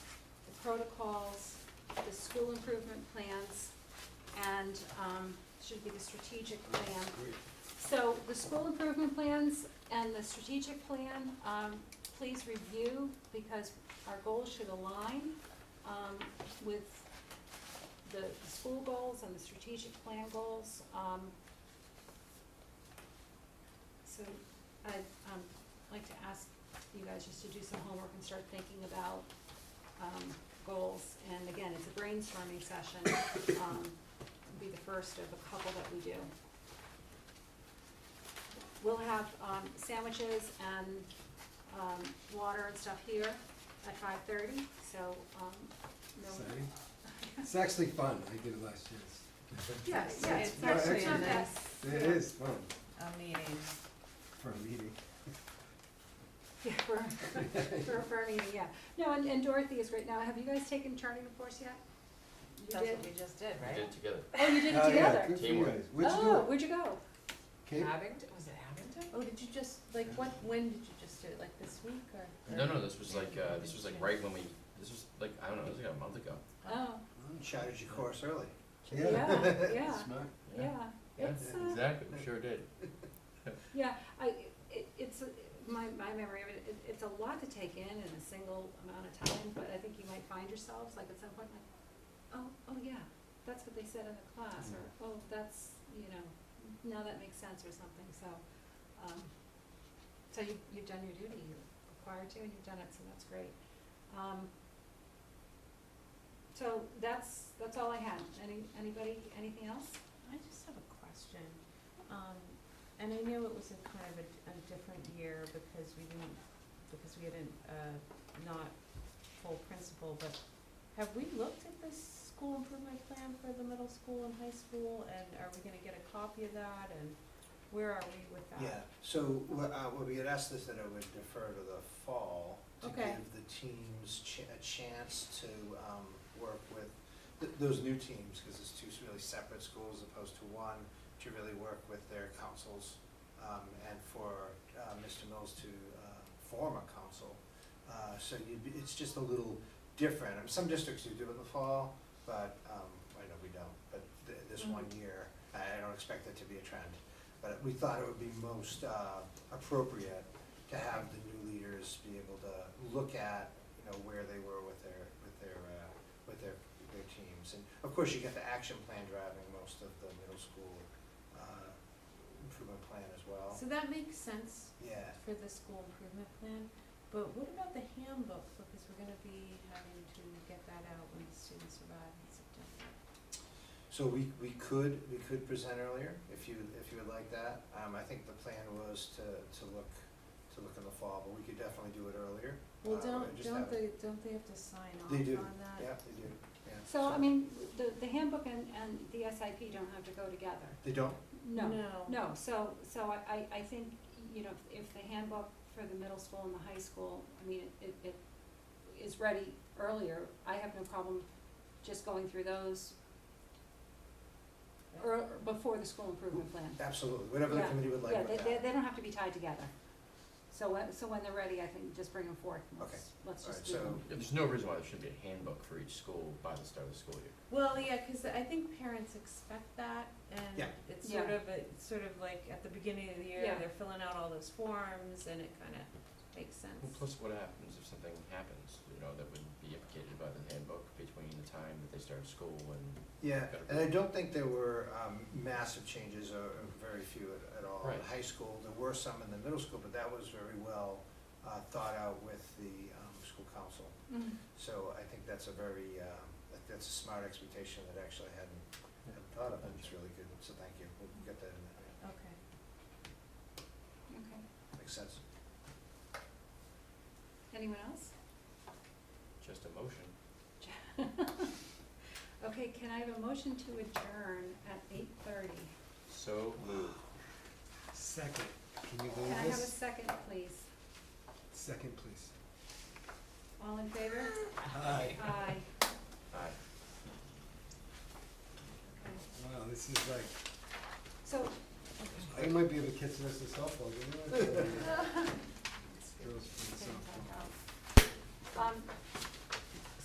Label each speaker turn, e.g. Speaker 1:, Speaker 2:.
Speaker 1: protocols, the school improvement plans, and, um, should be the strategic plan. So the school improvement plans and the strategic plan, um, please review because our goals should align, um, with the school goals and the strategic plan goals. Um, so I'd, um, like to ask you guys just to do some homework and start thinking about, um, goals. And again, it's a brainstorming session, um, it'll be the first of a couple that we do. We'll have, um, sandwiches and, um, water and stuff here at five thirty, so, um, no.
Speaker 2: Exciting. It's actually fun. I did it last year.
Speaker 3: Yeah,
Speaker 1: Yes,
Speaker 3: yeah,
Speaker 1: yes,
Speaker 3: it's
Speaker 1: that's-
Speaker 3: actually
Speaker 1: not
Speaker 3: a
Speaker 1: that-
Speaker 3: nice,
Speaker 2: It is fun
Speaker 3: a meeting.
Speaker 2: for a meeting.
Speaker 1: Yeah, for, for, for me, yeah. No, and, and Dorothy is great. Now, have you guys taken turning the course yet? You
Speaker 3: That's
Speaker 1: did?
Speaker 3: what we just did,
Speaker 4: We
Speaker 3: right?
Speaker 4: did it together.
Speaker 1: Oh, you did it
Speaker 2: Oh, yeah,
Speaker 1: together?
Speaker 2: Good for you
Speaker 4: Teamwork.
Speaker 2: guys. Where'd you do
Speaker 1: Oh,
Speaker 2: it?
Speaker 1: where'd you go?
Speaker 2: Cape?
Speaker 3: Abington, was it Abington? Oh, did you just, like, what, when did you just do it, like this week or?
Speaker 4: No, no, this was like, uh, this was like right when we, this was like, I don't know, it was like a month ago.
Speaker 1: Oh,
Speaker 5: Shouted your course early.
Speaker 2: Yeah.
Speaker 1: yeah, yeah,
Speaker 2: Smart.
Speaker 1: yeah.
Speaker 4: Yeah,
Speaker 1: It's, uh,
Speaker 4: Exactly, we sure did.
Speaker 1: Yeah, I, it, it's, a- my, my memory of it, it, it's a lot to take in in a single amount of time, but I think you might find yourselves, like, at some point, like, oh, oh, yeah, that's what they said in the class, or, oh, that's, you know, now that makes sense or something, so, um, so you, you've done your duty, you're required to, and you've done it, so that's great. Um, so that's, that's all I had, any, anybody, anything else?
Speaker 3: I just have a question. Um, and I know it was a kind of a, a different year because we didn't, because we had a, uh, not full principal, but have we looked at this school improvement plan for the middle school and high school, and are we gonna get a copy of that, and where are we with that?
Speaker 5: Yeah, so what, uh, what we had asked is that I would defer to the fall to give
Speaker 3: Okay.
Speaker 5: the teams ch- a chance to, um, work with th- those new teams, cause it's two really separate schools as opposed to one, to really work with their councils, um, and for, uh, Mr. Mills to, uh, form a council. Uh, so you'd be, it's just a little different, I mean, some districts do do it in the fall, but, um, I know we don't, but th- this one year, I I don't expect it to be a trend. But we thought it would be most uh, appropriate to have the new leaders be able to look at, you know, where they were with their, with their, uh, with their, their teams. And of course, you get the action plan driving most of the middle school uh, improvement plan as well.
Speaker 3: So that makes sense
Speaker 5: Yeah,
Speaker 3: for the school improvement plan, but what about the handbook, because we're gonna be having to get that out when the students arrive in September.
Speaker 5: so we, we could, we could present earlier if you, if you would like that. Um, I think the plan was to, to look, to look in the fall, but we could definitely do it earlier.
Speaker 3: Well,
Speaker 5: Uh,
Speaker 3: don't,
Speaker 5: I just
Speaker 3: don't
Speaker 5: have-
Speaker 3: they, don't they have to sign off
Speaker 5: They
Speaker 3: on
Speaker 5: do.
Speaker 3: that?
Speaker 5: Yeah, they do, yeah.
Speaker 1: So, I mean, the, the handbook and, and the SIP don't have to go together.
Speaker 5: They don't,
Speaker 1: No,
Speaker 3: No,
Speaker 1: no, so, so I- I, I think, you know, if the handbook for the middle school and the high school, I mean, it, it is ready earlier, I have no problem just going through those or, before the school improvement plan.
Speaker 5: absolutely, whatever the
Speaker 1: Yeah,
Speaker 5: committee would like
Speaker 1: Yeah,
Speaker 5: with
Speaker 1: they,
Speaker 5: that.
Speaker 1: they, they don't have to be tied together. So when, so when they're ready, I think just bring them forth, and
Speaker 5: Okay.
Speaker 1: let's, let's just
Speaker 5: Alright,
Speaker 1: do them.
Speaker 5: so,
Speaker 4: Yeah, There's no reason why there shouldn't be a handbook for each school by the start of the school year.
Speaker 3: well, yeah, cause I think parents expect that, and
Speaker 5: Yeah.
Speaker 3: it's
Speaker 1: Yeah.
Speaker 3: sort of, it's sort of like at the beginning of the year,
Speaker 1: Yeah.
Speaker 3: they're filling out all those forms, and it kinda makes sense.
Speaker 4: Well, plus what happens if something happens, you know, that would be implicated by the handbook between the time that they start school and.
Speaker 5: yeah,
Speaker 4: Better.
Speaker 5: and I don't think there were um, massive changes or or very few at- at all.
Speaker 4: Right.
Speaker 5: In high school, there were some in the middle school, but that was very well uh, thought out with the um, school council.
Speaker 1: Mhm.
Speaker 5: So I think that's a very, um, that- that's a smart expectation that actually I hadn't, hadn't thought of, and it's really good, so thank you. We'll get that in there,
Speaker 3: Okay.
Speaker 1: Okay,
Speaker 5: makes sense.
Speaker 1: anyone else?
Speaker 4: Just a motion.
Speaker 1: Okay, can I have a motion to adjourn at eight thirty?
Speaker 4: So moved.
Speaker 2: Second. Can
Speaker 1: Can
Speaker 2: you
Speaker 1: I
Speaker 2: believe
Speaker 1: have a
Speaker 2: this?
Speaker 1: second, please?
Speaker 2: Second, please.
Speaker 1: All in favor?
Speaker 2: Hi.
Speaker 1: Aye.
Speaker 4: Aye.
Speaker 1: Okay.
Speaker 2: Wow, this is like,
Speaker 1: So,
Speaker 2: I might be able to catch this in softball, didn't I? Girls playing softball.
Speaker 1: um,